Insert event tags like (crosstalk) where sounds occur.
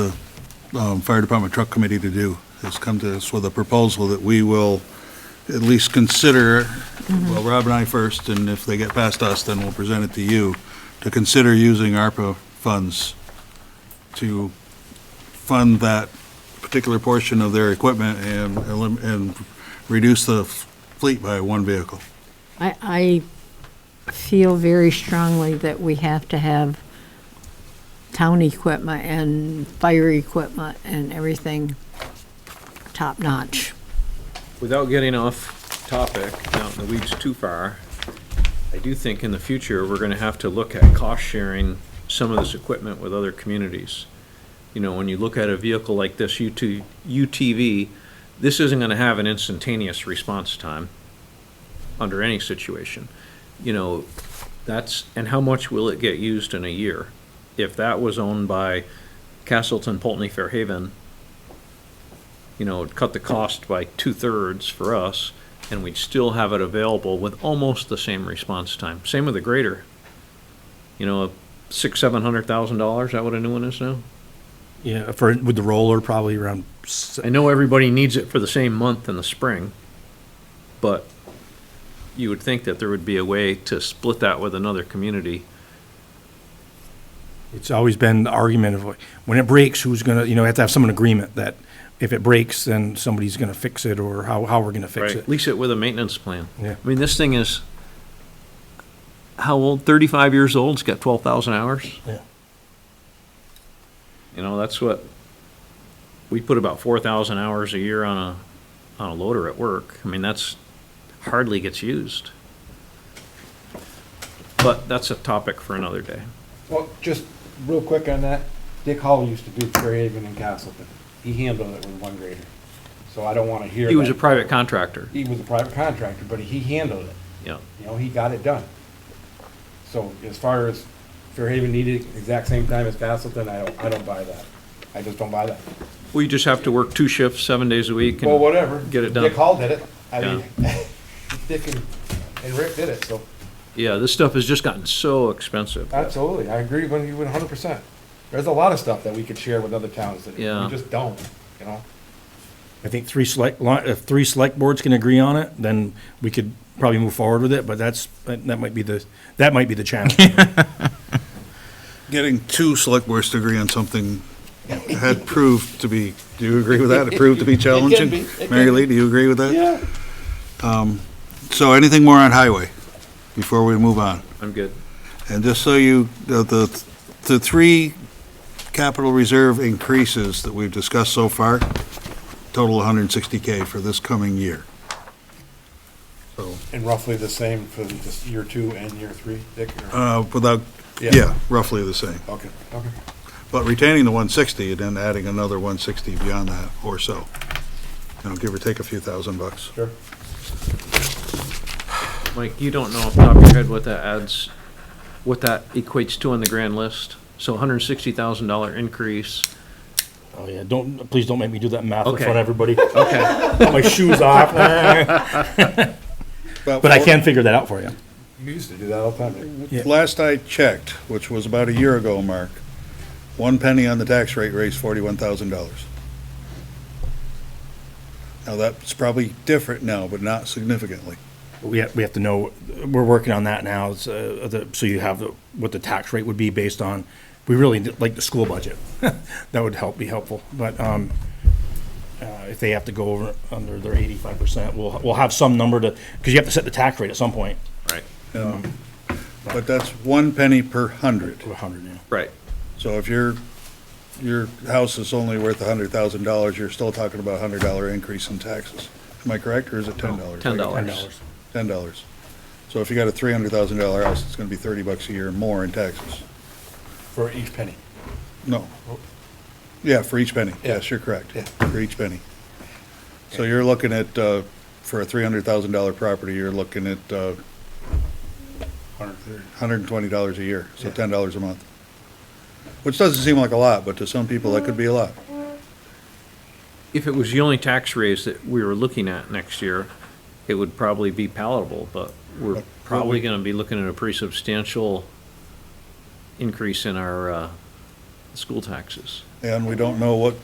um, Fire Department Truck Committee to do, is come to us with a proposal that we will at least consider, well, Rob and I first, and if they get past us, then we'll present it to you, to consider using ARPA funds to fund that particular portion of their equipment and, elim- and reduce the fleet by one vehicle. I, I feel very strongly that we have to have town equipment and fire equipment and everything top-notch. Without getting off topic, out in the weeds too far, I do think in the future, we're gonna have to look at cost sharing some of this equipment with other communities. You know, when you look at a vehicle like this UT UTV, this isn't gonna have an instantaneous response time under any situation. You know, that's, and how much will it get used in a year? If that was owned by Castleton, Pulteney, Fairhaven, you know, it'd cut the cost by two-thirds for us, and we'd still have it available with almost the same response time. Same with the grader. You know, six, seven hundred thousand dollars, is that what a new one is now? Yeah, for, with the roller, probably around, s- I know everybody needs it for the same month in the spring, but you would think that there would be a way to split that with another community. it's always been the argument of, like, when it breaks, who's gonna, you know, have to have some agreement that if it breaks, then somebody's gonna fix it, or how, how we're gonna fix Right, it. lease it with a maintenance plan. Yeah. I mean, this thing is, how old, thirty-five years old, it's got twelve thousand hours? Yeah. You know, that's what, we put about four thousand hours a year on a, on a loader at work. I mean, that's hardly gets used. But that's a topic for another day. Well, just real quick on that, Dick Hall used to do Fairhaven and Castleton. He handled it with one grader. So I don't want to hear. He was a that- private contractor, He was a private contractor, but he handled it. yeah. You know, he got it done. So as far as Fairhaven needed it exact same time as Castleton, I don't, I don't buy that. I just don't buy that. Well, you just have to work two shifts, seven days a week. and- Well, whatever. get it done. Dick Hall did it. I mean, (laughs) Dick and, and Rick did it, so Yeah, this stuff has just gotten so expensive. absolutely. I agree with you one hundred percent. There's a lot of stuff that we could share with other towns that we Yeah. just don't, you know? I think three select, li- if three select boards can agree on it, then we could probably move forward with it, but that's, that that might be the, that might be (laughs) the challenge. Getting two select boards to agree on something had proved to be, do you agree with that? It proved to be challenging? be, it can Mary Lee, do you agree with that? Yeah. So anything more on highway before we move on? I'm good. And just so you, the- the, the three capital reserve increases that we've discussed so far, total 160K for this coming year. So, And roughly the same for just year two and year three, Dick? or- uh, without, Yeah. yeah, roughly the same. Okay, okay. But retaining the 160 and then adding another 160 beyond that or so. You know, give or take a few thousand bucks. Sure. Mike, you don't know off the top of your head what that adds, what that equates to on the grand list? So hundred and sixty thousand dollar increase. Oh, yeah, don't, please don't make me do that math in Okay. front of everybody. (laughs) Okay. Put my (laughs) shoes off. But I can figure that out for you. You used to do that all the time. Dick. Yeah. Last I checked, which was about a year ago, Mark, one penny on the tax rate raised forty-one thousand dollars. Now, that's probably different now, but not significantly. We have, we have to know, we're working on that now, it's, uh, the- so you have the- what the tax rate would be based on, we really, d- like the school budget. (laughs) That would help, be helpful, but um, uh, if they have to go over, under their eighty-five percent, we'll, we'll have some number to, because you have to set the tax rate at some point. Right, But that's one penny per hundred. To a hundred now. right. So if your, your house is only worth hundred thousand dollars, you're still talking about a hundred dollar increase in taxes. Am I correct, or is it ten dollars? Ten Ten dollars. dollars. Ten dollars. So if you got a three hundred thousand dollar house, it's gonna be thirty bucks a year more in taxes. For each penny. No. Yeah, for each penny. Yes, you're correct. For each penny. So you're looking at, uh, for a three hundred thousand dollar property, you're looking at, uh, hundred and twenty dollars a year, so ten dollars a month. Which doesn't seem like a lot, but to some people, that could be a lot. If it was the only tax raise that we were looking at next year, it would probably be palatable, but we're probably gonna be looking at a pretty substantial increase in our, uh, school taxes. And we don't know what